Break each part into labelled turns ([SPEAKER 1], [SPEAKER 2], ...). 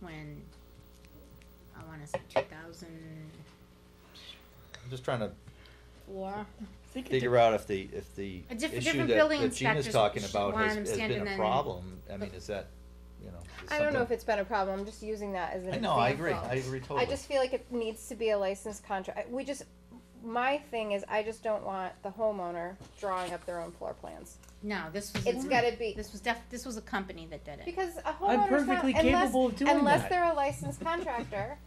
[SPEAKER 1] when, I wanna say two thousand
[SPEAKER 2] I'm just trying to
[SPEAKER 1] four.
[SPEAKER 3] think it
[SPEAKER 2] figure
[SPEAKER 3] de-
[SPEAKER 2] out if the, if the
[SPEAKER 1] A diff-
[SPEAKER 2] issue
[SPEAKER 1] different
[SPEAKER 2] that,
[SPEAKER 1] building
[SPEAKER 2] that Gina's
[SPEAKER 1] inspectors
[SPEAKER 2] talking
[SPEAKER 1] should
[SPEAKER 2] about
[SPEAKER 1] want
[SPEAKER 2] has,
[SPEAKER 1] them
[SPEAKER 2] has
[SPEAKER 1] standing
[SPEAKER 2] been a
[SPEAKER 1] in-
[SPEAKER 2] problem, I mean, is that, you know, is
[SPEAKER 4] I don't know if
[SPEAKER 2] something-
[SPEAKER 4] it's been a problem, I'm just using that as an
[SPEAKER 2] I
[SPEAKER 4] example.
[SPEAKER 2] know, I agree, I agree totally.
[SPEAKER 4] I just feel like it needs to be a licensed contract, we just, my thing is, I just don't want the homeowner drawing up their own floor plans.
[SPEAKER 1] No, this was.
[SPEAKER 4] It's gotta be,
[SPEAKER 1] This was def, this was a company that did it.
[SPEAKER 4] because a
[SPEAKER 3] I'm
[SPEAKER 4] homeowner's not,
[SPEAKER 3] perfectly
[SPEAKER 4] unless,
[SPEAKER 3] capable of doing that.
[SPEAKER 4] unless they're a licensed contractor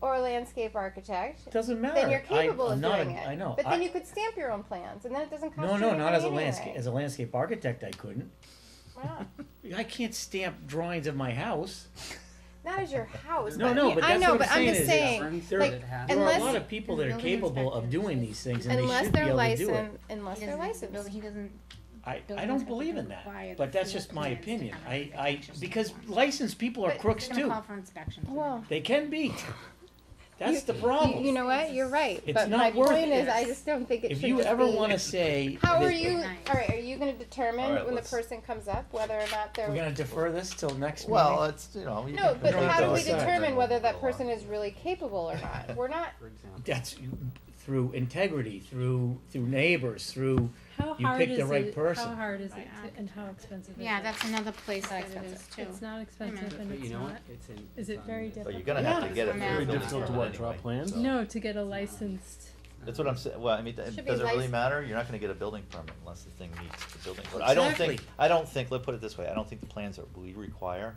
[SPEAKER 4] or a landscape architect,
[SPEAKER 3] Doesn't matter.
[SPEAKER 4] then you're
[SPEAKER 3] I-
[SPEAKER 4] capable
[SPEAKER 3] I'm
[SPEAKER 4] of
[SPEAKER 3] not
[SPEAKER 4] doing
[SPEAKER 3] a-
[SPEAKER 4] it.
[SPEAKER 3] I know.
[SPEAKER 4] But then
[SPEAKER 3] I-
[SPEAKER 4] you could stamp your own plans, and then it doesn't cost
[SPEAKER 3] No,
[SPEAKER 4] you
[SPEAKER 3] no,
[SPEAKER 4] anything
[SPEAKER 3] not as a
[SPEAKER 4] anyway.
[SPEAKER 3] landscape, as a landscape architect, I couldn't.
[SPEAKER 4] Why not?
[SPEAKER 3] I can't stamp drawings of my house.
[SPEAKER 4] Not as your house.
[SPEAKER 3] No, no, but
[SPEAKER 4] I
[SPEAKER 3] that's
[SPEAKER 4] know,
[SPEAKER 3] what
[SPEAKER 4] but
[SPEAKER 3] I'm saying
[SPEAKER 4] just
[SPEAKER 3] is-
[SPEAKER 4] saying,
[SPEAKER 3] There,
[SPEAKER 4] like,
[SPEAKER 3] there are a
[SPEAKER 4] unless-
[SPEAKER 3] lot of people that are
[SPEAKER 1] Building
[SPEAKER 3] capable of
[SPEAKER 1] inspector.
[SPEAKER 3] doing these things and they
[SPEAKER 4] unless
[SPEAKER 3] should be
[SPEAKER 4] they're
[SPEAKER 3] able to do it.
[SPEAKER 4] licensed, unless
[SPEAKER 1] He
[SPEAKER 4] they're
[SPEAKER 1] doesn't- the building-
[SPEAKER 4] licensed.
[SPEAKER 1] He doesn't,
[SPEAKER 3] I, I
[SPEAKER 1] building
[SPEAKER 3] don't
[SPEAKER 1] inspector
[SPEAKER 3] believe
[SPEAKER 1] can
[SPEAKER 3] in
[SPEAKER 1] require
[SPEAKER 3] that,
[SPEAKER 1] the
[SPEAKER 3] but that's
[SPEAKER 1] full
[SPEAKER 3] just my
[SPEAKER 1] plans to
[SPEAKER 3] opinion.
[SPEAKER 1] have
[SPEAKER 3] I,
[SPEAKER 1] it
[SPEAKER 3] I,
[SPEAKER 1] inspected.
[SPEAKER 3] because licensed people are
[SPEAKER 4] But
[SPEAKER 3] crooks
[SPEAKER 1] he's gonna
[SPEAKER 3] too.
[SPEAKER 1] call for inspection.
[SPEAKER 4] Well,
[SPEAKER 3] They can be.
[SPEAKER 4] You-
[SPEAKER 3] That's the
[SPEAKER 4] You, you
[SPEAKER 3] problem.
[SPEAKER 4] know what? You're right.
[SPEAKER 3] It's
[SPEAKER 4] but
[SPEAKER 3] not
[SPEAKER 4] my
[SPEAKER 3] worth
[SPEAKER 4] point is,
[SPEAKER 3] it.
[SPEAKER 4] I just don't think it
[SPEAKER 3] If
[SPEAKER 4] should
[SPEAKER 3] you
[SPEAKER 4] just
[SPEAKER 3] ever
[SPEAKER 4] be-
[SPEAKER 3] wanna say.
[SPEAKER 4] How
[SPEAKER 3] that-
[SPEAKER 4] are you?
[SPEAKER 1] Nice.
[SPEAKER 4] All right. Are you going to determine
[SPEAKER 2] All right,
[SPEAKER 4] when the
[SPEAKER 2] let's-
[SPEAKER 4] person comes up whether or not they're?
[SPEAKER 3] We're gonna defer this till next meeting?
[SPEAKER 2] Well, it's, you know. you
[SPEAKER 4] no,
[SPEAKER 2] can-
[SPEAKER 4] but
[SPEAKER 3] don't have
[SPEAKER 4] how
[SPEAKER 3] to
[SPEAKER 4] do we
[SPEAKER 3] decide.
[SPEAKER 4] determine whether that person is really capable or not? We're not.
[SPEAKER 5] for example.
[SPEAKER 3] That's through integrity, through, through neighbors, through
[SPEAKER 6] How
[SPEAKER 3] You
[SPEAKER 6] hard
[SPEAKER 3] picked
[SPEAKER 6] is
[SPEAKER 3] the right
[SPEAKER 6] it-
[SPEAKER 3] person.
[SPEAKER 6] How hard is it,
[SPEAKER 1] Right.
[SPEAKER 6] to- and how expensive is it?
[SPEAKER 1] Yeah, that's another place that it is
[SPEAKER 4] expensive.
[SPEAKER 1] too.
[SPEAKER 6] It's not
[SPEAKER 1] minute.
[SPEAKER 6] expensive and
[SPEAKER 5] But you
[SPEAKER 6] it's
[SPEAKER 5] know
[SPEAKER 6] not,
[SPEAKER 5] what? It's in-
[SPEAKER 6] is
[SPEAKER 5] it's
[SPEAKER 6] it
[SPEAKER 5] on
[SPEAKER 6] very
[SPEAKER 5] the-
[SPEAKER 2] Well,
[SPEAKER 6] difficult?
[SPEAKER 2] you're gonna have to
[SPEAKER 1] Yeah.
[SPEAKER 2] get it.
[SPEAKER 1] Very
[SPEAKER 2] through the
[SPEAKER 1] difficult to
[SPEAKER 2] building
[SPEAKER 7] what, draw
[SPEAKER 2] anyway,
[SPEAKER 7] plans?
[SPEAKER 2] so-
[SPEAKER 6] No, to get a license,
[SPEAKER 2] That's what I'm saying, well, I mean, th-
[SPEAKER 4] Should be
[SPEAKER 2] does it really
[SPEAKER 4] lic-
[SPEAKER 2] matter? You're not gonna get a building permit unless the thing meets the building. code. I don't think,
[SPEAKER 3] Exactly.
[SPEAKER 2] I don't think, let's put it this way, I don't think the plans that we require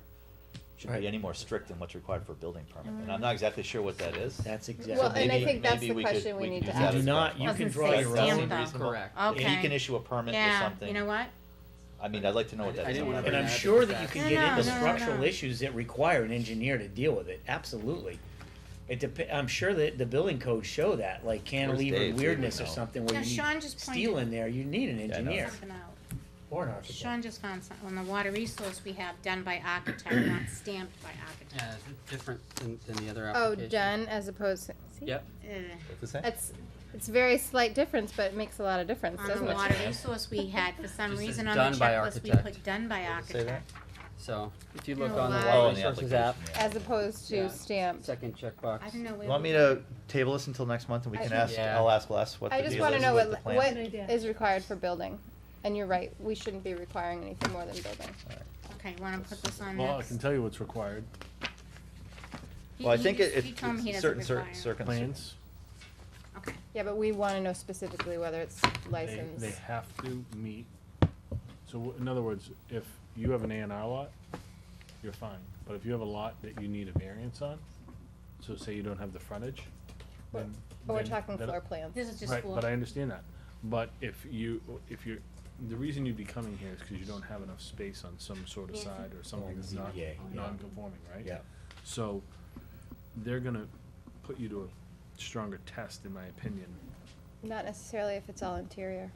[SPEAKER 2] should
[SPEAKER 3] Right.
[SPEAKER 2] be any more strict than what's required for a building permit, and I'm not exactly sure what that is.
[SPEAKER 3] That's exactly.
[SPEAKER 4] Well, and I
[SPEAKER 2] Maybe-
[SPEAKER 4] think that's
[SPEAKER 2] maybe
[SPEAKER 4] the
[SPEAKER 2] we could-
[SPEAKER 4] question we
[SPEAKER 2] we
[SPEAKER 4] need
[SPEAKER 2] could
[SPEAKER 4] to
[SPEAKER 2] do
[SPEAKER 3] You
[SPEAKER 2] that
[SPEAKER 4] ask.
[SPEAKER 3] do
[SPEAKER 2] is
[SPEAKER 3] not,
[SPEAKER 2] fine.
[SPEAKER 3] you can
[SPEAKER 1] Doesn't
[SPEAKER 3] draw
[SPEAKER 1] say
[SPEAKER 3] your
[SPEAKER 1] stamp
[SPEAKER 3] own.
[SPEAKER 1] Stamp though.
[SPEAKER 5] Correct.
[SPEAKER 2] And he can
[SPEAKER 1] Okay.
[SPEAKER 2] issue a permit or
[SPEAKER 1] Yeah,
[SPEAKER 2] something.
[SPEAKER 1] you know what?
[SPEAKER 2] I mean, I'd like to know what
[SPEAKER 5] I-
[SPEAKER 2] that
[SPEAKER 5] I
[SPEAKER 2] is.
[SPEAKER 5] didn't wanna
[SPEAKER 3] And
[SPEAKER 5] bring
[SPEAKER 3] I'm
[SPEAKER 5] that up
[SPEAKER 3] sure
[SPEAKER 5] because
[SPEAKER 3] that you
[SPEAKER 5] that's-
[SPEAKER 3] can
[SPEAKER 1] No,
[SPEAKER 3] get
[SPEAKER 1] no,
[SPEAKER 3] into
[SPEAKER 1] no, no,
[SPEAKER 3] structural
[SPEAKER 1] no.
[SPEAKER 3] issues that require an engineer to deal with it, absolutely. It dep- I'm sure that the building codes show that, like
[SPEAKER 2] Dave? He
[SPEAKER 3] cantilever
[SPEAKER 2] would
[SPEAKER 3] weirdness or
[SPEAKER 2] know.
[SPEAKER 3] something
[SPEAKER 1] Yeah,
[SPEAKER 3] where you
[SPEAKER 1] Sean
[SPEAKER 3] need
[SPEAKER 1] just
[SPEAKER 3] steel
[SPEAKER 1] pointed
[SPEAKER 3] in there, you need an
[SPEAKER 2] I know.
[SPEAKER 3] engineer
[SPEAKER 1] something out.
[SPEAKER 3] or an architect.
[SPEAKER 1] Sean just found something, on the water resource we have done by architect, not stamped by architect.
[SPEAKER 5] Yeah, is it different than, than the
[SPEAKER 4] Oh,
[SPEAKER 5] other application?
[SPEAKER 4] done as opposed. To, see,
[SPEAKER 5] Yep.
[SPEAKER 1] Ugh.
[SPEAKER 2] What's it say?
[SPEAKER 4] That's it's very slight difference, but it makes a lot of difference,
[SPEAKER 1] On
[SPEAKER 4] doesn't
[SPEAKER 1] the
[SPEAKER 4] it?
[SPEAKER 1] water resource we had, for some
[SPEAKER 5] Just says
[SPEAKER 1] reason on the
[SPEAKER 5] done by
[SPEAKER 1] checklist, we
[SPEAKER 5] architect.
[SPEAKER 1] put done by
[SPEAKER 2] Does it say that?
[SPEAKER 1] architect.
[SPEAKER 5] So if you
[SPEAKER 4] No,
[SPEAKER 5] look on the
[SPEAKER 4] why-
[SPEAKER 2] Oh, in
[SPEAKER 5] Water
[SPEAKER 2] the
[SPEAKER 5] Resources
[SPEAKER 2] application,
[SPEAKER 5] app,
[SPEAKER 2] yeah.
[SPEAKER 4] As opposed to
[SPEAKER 5] Yeah.
[SPEAKER 4] stamped.
[SPEAKER 5] second checkbox.
[SPEAKER 1] I don't know where.
[SPEAKER 2] You want
[SPEAKER 1] we-
[SPEAKER 2] me to table this until next month and we
[SPEAKER 4] I
[SPEAKER 2] can
[SPEAKER 4] think-
[SPEAKER 2] ask,
[SPEAKER 5] Yeah.
[SPEAKER 2] I'll ask Les what the
[SPEAKER 4] I
[SPEAKER 2] deal
[SPEAKER 4] just
[SPEAKER 2] is
[SPEAKER 4] want to know
[SPEAKER 2] with the
[SPEAKER 4] what
[SPEAKER 2] plan?
[SPEAKER 4] what
[SPEAKER 6] Good idea.
[SPEAKER 4] is required for building. And you're right. We shouldn't be requiring anything more than building.
[SPEAKER 1] Okay, wanna put this on
[SPEAKER 7] Well, I
[SPEAKER 1] next?
[SPEAKER 7] can tell you what's required,
[SPEAKER 1] He-
[SPEAKER 2] Well, I
[SPEAKER 1] he
[SPEAKER 2] think
[SPEAKER 1] just-
[SPEAKER 2] it,
[SPEAKER 1] he told me he
[SPEAKER 2] it's
[SPEAKER 1] doesn't
[SPEAKER 2] certain, certain
[SPEAKER 1] require.
[SPEAKER 2] circumstances.
[SPEAKER 7] plans,
[SPEAKER 1] Okay,
[SPEAKER 4] Yeah, but we want to know specifically whether it's
[SPEAKER 7] they,
[SPEAKER 4] licensed.
[SPEAKER 7] they have to meet. So w- in other words, if you have an A and R lot, you're fine, but if you have a lot that you need a variance on, so say you don't have the frontage, then.
[SPEAKER 4] But we're
[SPEAKER 7] then
[SPEAKER 4] talking
[SPEAKER 7] that-
[SPEAKER 4] floor plans.
[SPEAKER 1] this is just
[SPEAKER 7] Right,
[SPEAKER 1] for.
[SPEAKER 7] but I understand that, but if you, if you're, the reason you'd be coming here is cause you don't have enough space on some sort of
[SPEAKER 1] Yeah.
[SPEAKER 7] side or something
[SPEAKER 3] Or
[SPEAKER 7] that's not,
[SPEAKER 3] ZBA, yeah.
[SPEAKER 7] non-conforming, right?
[SPEAKER 3] Yeah.
[SPEAKER 7] So, they're gonna put you to a stronger test, in my opinion.
[SPEAKER 4] Not necessarily if it's all interior.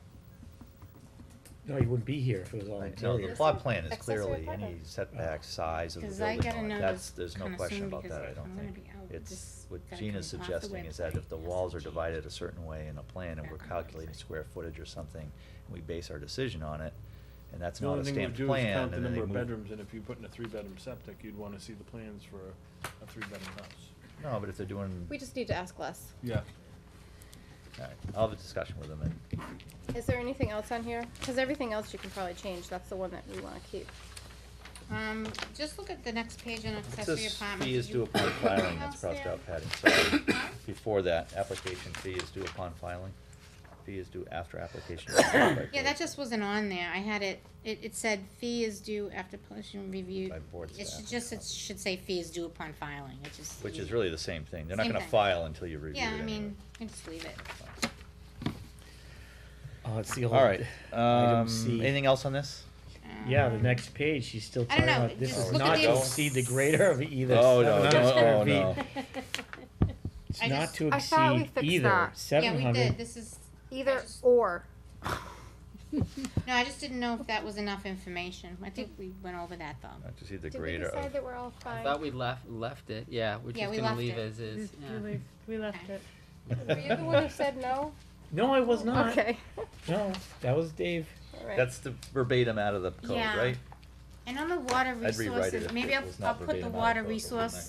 [SPEAKER 3] No, you wouldn't be here if it was all
[SPEAKER 2] Right, No, the
[SPEAKER 3] interior.
[SPEAKER 2] plot plan is
[SPEAKER 4] Accessory
[SPEAKER 2] clearly any
[SPEAKER 4] apartment.
[SPEAKER 2] setback, size of the
[SPEAKER 1] Cause I
[SPEAKER 2] building,
[SPEAKER 1] gotta
[SPEAKER 2] on
[SPEAKER 1] know
[SPEAKER 2] it.
[SPEAKER 1] this
[SPEAKER 2] that's, there's no
[SPEAKER 1] kinda
[SPEAKER 2] question
[SPEAKER 1] soon
[SPEAKER 2] about
[SPEAKER 1] because
[SPEAKER 2] that, I don't
[SPEAKER 1] I'm gonna
[SPEAKER 2] think.
[SPEAKER 1] be out
[SPEAKER 2] It's,
[SPEAKER 1] this-
[SPEAKER 2] what
[SPEAKER 1] gotta
[SPEAKER 2] Gina's
[SPEAKER 1] come off the
[SPEAKER 2] suggesting is
[SPEAKER 1] website.
[SPEAKER 2] that if the
[SPEAKER 1] Yes,
[SPEAKER 2] walls are
[SPEAKER 1] change.
[SPEAKER 2] divided a certain way in a plan and
[SPEAKER 1] Back
[SPEAKER 2] we're
[SPEAKER 1] on the
[SPEAKER 2] calculating
[SPEAKER 1] website.
[SPEAKER 2] square footage or something, and we base our decision on it, and that's
[SPEAKER 7] The
[SPEAKER 2] not
[SPEAKER 7] only
[SPEAKER 2] a
[SPEAKER 7] thing we'd
[SPEAKER 2] stamped
[SPEAKER 7] do is
[SPEAKER 2] plan,
[SPEAKER 7] count the
[SPEAKER 2] and then they
[SPEAKER 7] number
[SPEAKER 2] move.
[SPEAKER 7] of bedrooms, and if you put in a three-bedroom septic, you'd wanna see the plans for a three-bedroom house.
[SPEAKER 2] No, but if they're doing,
[SPEAKER 4] We just need to ask less.
[SPEAKER 7] Yeah.
[SPEAKER 2] alright, I'll have a discussion with them and,
[SPEAKER 4] Is there anything else on here? Because everything else you can probably change. That's the one that we want to keep.
[SPEAKER 1] Um, just look at the next page on
[SPEAKER 2] it
[SPEAKER 1] accessory
[SPEAKER 2] says
[SPEAKER 1] apartments.
[SPEAKER 2] fee
[SPEAKER 1] Did
[SPEAKER 2] is
[SPEAKER 1] you
[SPEAKER 2] due
[SPEAKER 1] put
[SPEAKER 2] upon
[SPEAKER 1] anything
[SPEAKER 2] filing, that's
[SPEAKER 1] else
[SPEAKER 2] crossed
[SPEAKER 1] there?
[SPEAKER 2] out, Patty, sorry. Before that, application fee is due upon filing, fee is due after application. is filed by
[SPEAKER 1] Yeah,
[SPEAKER 2] board.
[SPEAKER 1] that just wasn't on there. I had it, it, it said fee is due after pollution review.
[SPEAKER 2] By board
[SPEAKER 1] It
[SPEAKER 2] staff.
[SPEAKER 1] should just, it should say fee is due upon filing, it just.
[SPEAKER 2] Which is really the same thing. They're not
[SPEAKER 1] Same
[SPEAKER 2] gonna
[SPEAKER 1] thing.
[SPEAKER 2] file until you review it
[SPEAKER 1] Yeah, I
[SPEAKER 2] anyway.
[SPEAKER 1] mean, I just leave it.
[SPEAKER 3] Oh, it's the old.
[SPEAKER 2] All right,
[SPEAKER 3] Item
[SPEAKER 2] um,
[SPEAKER 3] C.
[SPEAKER 2] anything else on this?
[SPEAKER 3] Yeah, the
[SPEAKER 1] Um,
[SPEAKER 3] next page, she's still
[SPEAKER 1] I don't
[SPEAKER 3] talking
[SPEAKER 1] know,
[SPEAKER 3] about, this
[SPEAKER 2] just
[SPEAKER 3] is
[SPEAKER 2] look at
[SPEAKER 3] not
[SPEAKER 2] the
[SPEAKER 3] to
[SPEAKER 2] ex-
[SPEAKER 3] exceed the greater of either
[SPEAKER 2] Oh, no,
[SPEAKER 3] seven hundred
[SPEAKER 2] no,
[SPEAKER 3] square
[SPEAKER 2] oh, no.
[SPEAKER 3] feet. It's
[SPEAKER 1] I
[SPEAKER 3] not
[SPEAKER 1] just-
[SPEAKER 3] to
[SPEAKER 4] I thought we
[SPEAKER 3] exceed
[SPEAKER 4] fixed
[SPEAKER 3] either
[SPEAKER 4] that.
[SPEAKER 1] Yeah,
[SPEAKER 3] seven
[SPEAKER 1] we did,
[SPEAKER 3] hundred.
[SPEAKER 1] this is, I
[SPEAKER 4] Either
[SPEAKER 1] just-
[SPEAKER 4] or.
[SPEAKER 1] no, I just didn't know if that was enough information. I think we went over that though.
[SPEAKER 2] Not to see the
[SPEAKER 4] Did we
[SPEAKER 2] greater
[SPEAKER 4] decide
[SPEAKER 2] of.
[SPEAKER 4] that we're all
[SPEAKER 5] I
[SPEAKER 4] fine?
[SPEAKER 5] thought we left, left it, yeah, we're
[SPEAKER 1] Yeah,
[SPEAKER 5] just
[SPEAKER 1] we
[SPEAKER 5] gonna
[SPEAKER 1] left
[SPEAKER 5] leave
[SPEAKER 1] it.
[SPEAKER 5] as is,
[SPEAKER 6] We-
[SPEAKER 5] yeah.
[SPEAKER 6] we leave- we left it.
[SPEAKER 4] Were you the one who said no?
[SPEAKER 3] No, I was not.
[SPEAKER 4] Okay.
[SPEAKER 3] No, that was Dave.
[SPEAKER 4] All right.
[SPEAKER 2] That's the verbatim out of the code,
[SPEAKER 1] Yeah.
[SPEAKER 2] right?
[SPEAKER 1] And on the water
[SPEAKER 2] I'd rewrite it
[SPEAKER 1] resources,
[SPEAKER 2] if
[SPEAKER 1] maybe
[SPEAKER 2] it
[SPEAKER 1] I'll,
[SPEAKER 2] was not
[SPEAKER 1] I'll put the
[SPEAKER 2] verbatim
[SPEAKER 1] water
[SPEAKER 2] article, wouldn't I?
[SPEAKER 1] resource